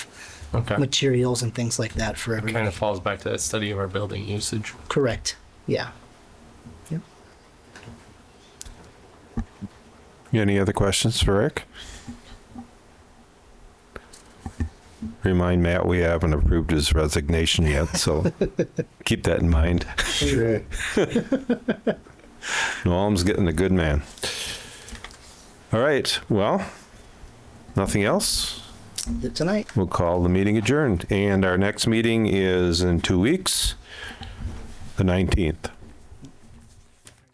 Okay. materials and things like that for everybody. Kind of falls back to that study of our building usage. Correct. Yeah. Yep. Any other questions for Rick? Remind Matt we haven't approved his resignation yet, so keep that in mind. Sure. Noam's getting a good man. All right, well, nothing else? Th- Tonight. We'll call the meeting adjourned. And our next meeting is in two weeks, the 19th.